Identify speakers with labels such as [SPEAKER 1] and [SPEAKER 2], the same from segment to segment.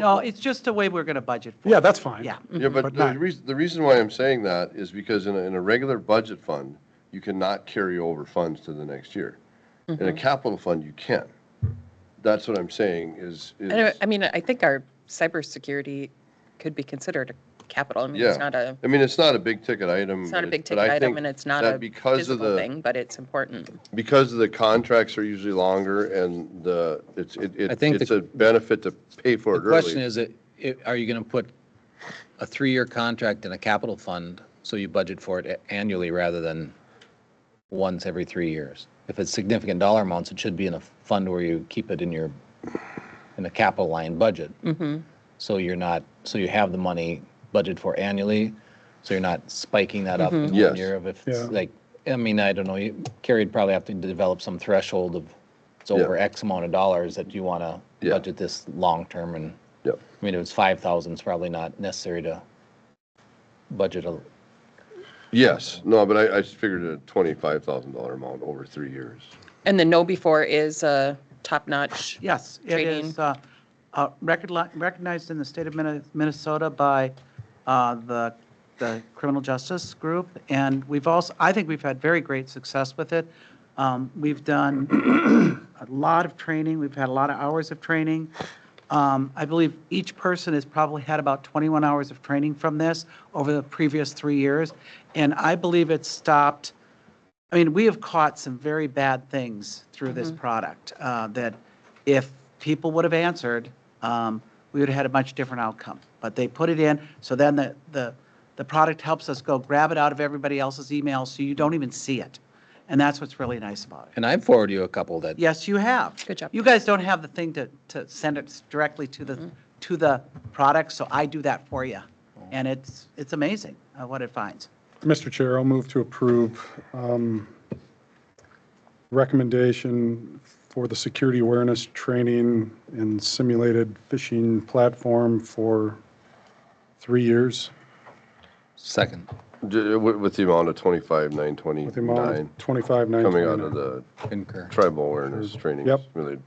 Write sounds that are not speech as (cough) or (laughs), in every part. [SPEAKER 1] No, it's just the way we're going to budget for it.
[SPEAKER 2] Yeah, that's fine.
[SPEAKER 1] Yeah.
[SPEAKER 3] Yeah,
[SPEAKER 4] Mm-hmm.
[SPEAKER 2] But
[SPEAKER 3] but the
[SPEAKER 2] not-
[SPEAKER 3] reason, the reason why I'm saying that is because in a, in a regular budget fund, you cannot carry over funds to the next year. In
[SPEAKER 4] Mm-hmm.
[SPEAKER 3] a capital fund, you can. That's what I'm saying is, is,
[SPEAKER 4] I don't- I mean, I think our cybersecurity could be considered a capital. I mean,
[SPEAKER 3] yeah.
[SPEAKER 4] it's not a,
[SPEAKER 3] I mean, it's not a big ticket item.
[SPEAKER 4] it's not a
[SPEAKER 3] but
[SPEAKER 4] big
[SPEAKER 3] it- but I
[SPEAKER 4] ticket item
[SPEAKER 3] think
[SPEAKER 4] and it's not
[SPEAKER 3] that
[SPEAKER 4] a
[SPEAKER 3] because of
[SPEAKER 4] physical
[SPEAKER 3] the-
[SPEAKER 4] thing, but it's important.
[SPEAKER 3] Because the contracts are usually longer and the, it's, it,
[SPEAKER 5] I
[SPEAKER 3] it-
[SPEAKER 5] think
[SPEAKER 3] it's
[SPEAKER 5] the-
[SPEAKER 3] a benefit to pay for
[SPEAKER 5] The
[SPEAKER 3] it
[SPEAKER 5] question
[SPEAKER 3] early.
[SPEAKER 5] is, i- i- are you going to put a three-year contract in a capital fund so you budget for it a- annually rather than once every three years? If it's significant dollar amounts, it should be in a fund where you keep it in your, in a capital line budget. So you're not, so you have the money budgeted for annually, so you're not spiking that up in
[SPEAKER 3] Yes.
[SPEAKER 5] one year of if it's
[SPEAKER 2] Yeah.
[SPEAKER 5] like, I mean, I don't know, you- Carrie would probably have to develop some threshold of it's
[SPEAKER 3] Yeah.
[SPEAKER 5] over X amount of dollars that you want to
[SPEAKER 3] Yeah.
[SPEAKER 5] budget this long-term and, I
[SPEAKER 3] Yep.
[SPEAKER 5] mean, if it's 5,000, it's probably not necessary to budget a,
[SPEAKER 3] Yes, no, but I, I just figured a twenty-five thousand dollar amount over three years.
[SPEAKER 4] And the know before is uh, top-notch.
[SPEAKER 1] Yes, it
[SPEAKER 4] Training.
[SPEAKER 1] is uh, uh, recogni- recognized in the state of Minne- Minnesota by uh, the the criminal justice group, and we've also, I think we've had very great success with it. Um, We've done a lot of training, we've had a lot of hours of training. Um, I believe each person has probably had about 21 hours of training from this over the previous three years, and I believe it's stopped I mean, we have caught some very bad things through
[SPEAKER 4] Mm-hmm.
[SPEAKER 1] this product uh, that if people would have answered, um, we would have had a much different outcome. But they put it in, so then the, the, the product helps us go grab it out of everybody else's email so you don't even see it. And that's what's really nice about it.
[SPEAKER 5] and I forwarded you a couple that,
[SPEAKER 1] Yes, you have.
[SPEAKER 4] Good job. Mm-hmm.
[SPEAKER 1] You guys don't have the thing to, to send it directly to the, to the product, so I do that for you. And it's, it's amazing uh, what it finds.
[SPEAKER 2] Mr. Chair, I'll move to approve um, recommendation for the security awareness training and simulated phishing platform for three years
[SPEAKER 5] second.
[SPEAKER 3] Ju- With, with the amount of twenty-five, nine
[SPEAKER 2] with the amount
[SPEAKER 3] twenty-nine
[SPEAKER 2] of 25,
[SPEAKER 3] coming out of the
[SPEAKER 5] Concur.
[SPEAKER 3] tribal awareness training.
[SPEAKER 2] Yep.
[SPEAKER 3] Really.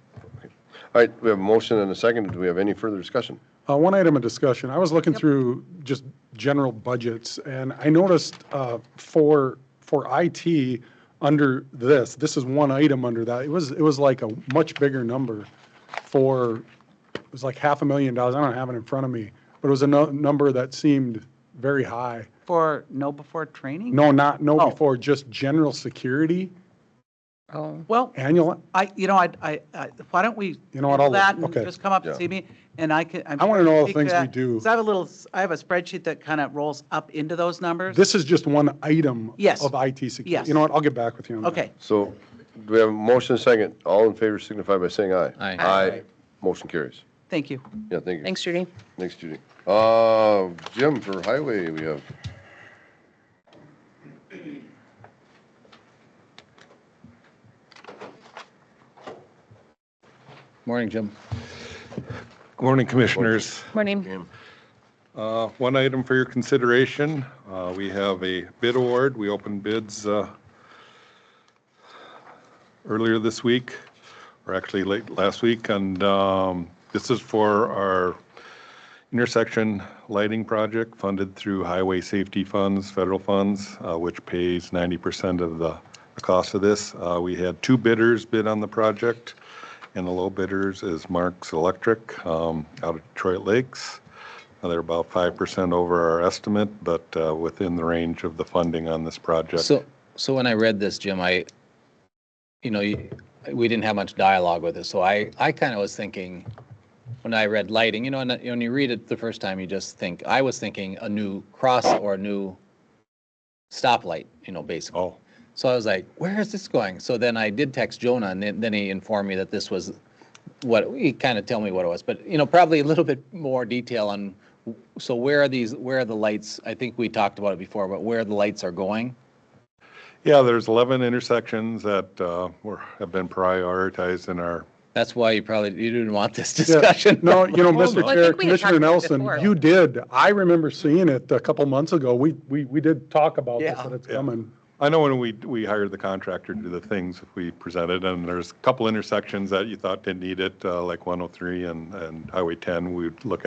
[SPEAKER 3] All right, we have a motion and a second. Do we have any further discussion?
[SPEAKER 2] Uh, One item of discussion, I was looking through just general budgets, and I noticed uh, for, for IT, under this, this is one item under that, it was, it was like a much bigger number for, it was like half a million dollars, I don't have it in front of me, but it was a nu- number that seemed very high.
[SPEAKER 1] For know before training?
[SPEAKER 2] No, not, no
[SPEAKER 1] Oh.
[SPEAKER 2] before, just general security,
[SPEAKER 4] Oh,
[SPEAKER 1] Well,
[SPEAKER 2] annual,
[SPEAKER 1] I, you know, I, I, I- why don't we?
[SPEAKER 2] You know what,
[SPEAKER 1] handle
[SPEAKER 2] I'll
[SPEAKER 1] that
[SPEAKER 2] look.
[SPEAKER 1] and
[SPEAKER 2] Okay.
[SPEAKER 1] Just come up and
[SPEAKER 3] Yeah.
[SPEAKER 1] see me, and I can.
[SPEAKER 2] I wanna know all the things we do.
[SPEAKER 1] Because I have a little, I have a spreadsheet that kind of rolls up into those numbers.
[SPEAKER 2] this is just one item.
[SPEAKER 1] Yes.
[SPEAKER 2] Of IT security.
[SPEAKER 1] Yes.
[SPEAKER 2] You know what, I'll get back with you on that.
[SPEAKER 1] Okay,
[SPEAKER 3] So do we have a motion and a second? All in favor signify by saying aye.
[SPEAKER 5] Aye.
[SPEAKER 3] Aye. Motion carries.
[SPEAKER 1] thank you.
[SPEAKER 3] Yeah, thank you.
[SPEAKER 4] thanks, Judy.
[SPEAKER 3] Thanks, Judy. Uh, Jim, for highway, we have,
[SPEAKER 5] Morning, Jim.
[SPEAKER 6] Good morning, Commissioners.
[SPEAKER 4] Morning.
[SPEAKER 6] Uh, One item for your consideration, uh, we have a bid award. We opened bids uh, earlier this week, or actually late last week, and um, this is for our intersection lighting project funded through highway safety funds, federal funds, uh, which pays 90% of the the cost of this. Uh, We had two bidders bid on the project, and the low bidders is Marks Electric um, out of Detroit Lakes. Uh, They're about 5% over our estimate, but uh, within the range of the funding on this project.
[SPEAKER 5] So, so when I read this, Jim, I, you know, you- we didn't have much dialogue with it, so I, I kind of was thinking, when I read lighting, you know, and uh, when you read it the first time, you just think, I was thinking a new cross or a new stoplight, you know, basically.
[SPEAKER 6] Oh,
[SPEAKER 5] So I was like, where is this going? So then I did text Jonah and then- then he informed me that this was what, he kind of tell me what it was, but, you know, probably a little bit more detail on, so where are these, where are the lights? I think we talked about it before, but where the lights are going?
[SPEAKER 6] yeah, there's 11 intersections that uh, were, have been prioritized in our
[SPEAKER 5] That's why you probably, you didn't want this
[SPEAKER 2] Yeah,
[SPEAKER 5] discussion. (laughs)
[SPEAKER 2] No, you know,
[SPEAKER 4] Well,
[SPEAKER 2] Mr.
[SPEAKER 4] I
[SPEAKER 2] Chair,
[SPEAKER 4] think we had talked
[SPEAKER 2] Commissioner
[SPEAKER 4] about it
[SPEAKER 2] Nelson,
[SPEAKER 4] before.
[SPEAKER 2] you did. I remember seeing it a couple months ago. We, we, we did talk about this,
[SPEAKER 1] Yeah.
[SPEAKER 2] that it's coming.
[SPEAKER 6] I know when we, we hired the contractor to do the things we presented, and oh there's a couple intersections that you thought didn't need it, uh, like 103 and, and Highway 10, we'd look